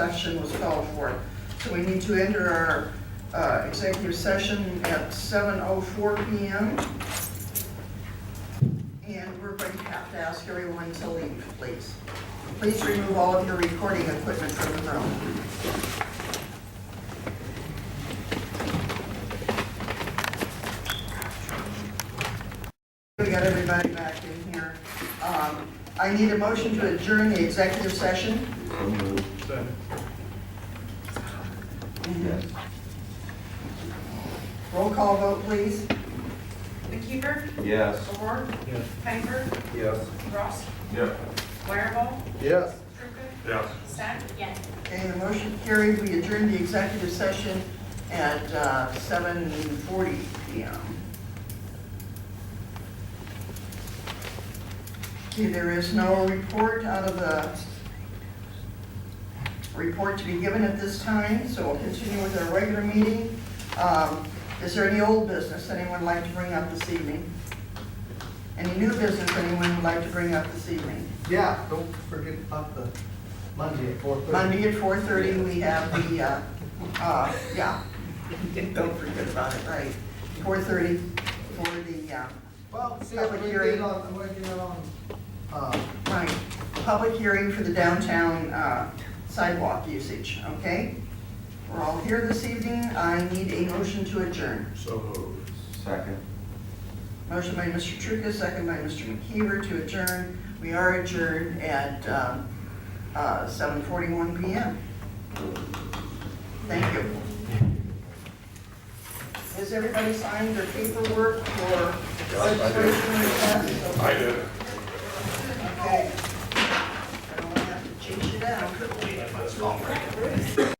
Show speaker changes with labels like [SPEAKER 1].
[SPEAKER 1] session was called for. So we need to enter our uh, executive session at 7:04 PM. And we're going to have to ask everyone to leave, please. Please remove all of your recording equipment from the room. We got everybody back in here. Um, I need a motion to adjourn the executive session. Roll call vote, please.
[SPEAKER 2] McKeever?
[SPEAKER 3] Yes.
[SPEAKER 2] O'Rourke?
[SPEAKER 4] Yes.
[SPEAKER 2] Piper?
[SPEAKER 3] Yes.
[SPEAKER 2] Ross?
[SPEAKER 3] Yep.
[SPEAKER 2] Wireball?
[SPEAKER 3] Yes.
[SPEAKER 2] Trucca?
[SPEAKER 3] Yes.
[SPEAKER 2] Stack? Yes.
[SPEAKER 1] Okay, the motion carried. We adjourn the executive session at uh, 7:40 PM. Okay, there is no report out of the, report to be given at this time, so we'll continue with our regular meeting. Um, Is there any old business anyone would like to bring up this evening? Any new business anyone would like to bring up this evening?
[SPEAKER 5] Yeah, don't forget about the Monday at four thirty.
[SPEAKER 1] Monday at four thirty, we have the, uh, uh, yeah, don't forget about it, right? Four thirty for the, uh,
[SPEAKER 5] Well, see, I'm gonna get it on, I'm gonna get it on, uh,
[SPEAKER 1] right, public hearing for the downtown uh, sidewalk usage, okay? We're all here this evening, I need a motion to adjourn.
[SPEAKER 4] So moved.
[SPEAKER 3] Second.
[SPEAKER 1] Motion by Mr. Trucca, second by Mr. McKeever to adjourn. We are adjourned at um, uh, 7:41 PM. Thank you. Has everybody signed their paperwork for registration request?
[SPEAKER 4] I did.
[SPEAKER 1] Okay. I don't have to chase you down.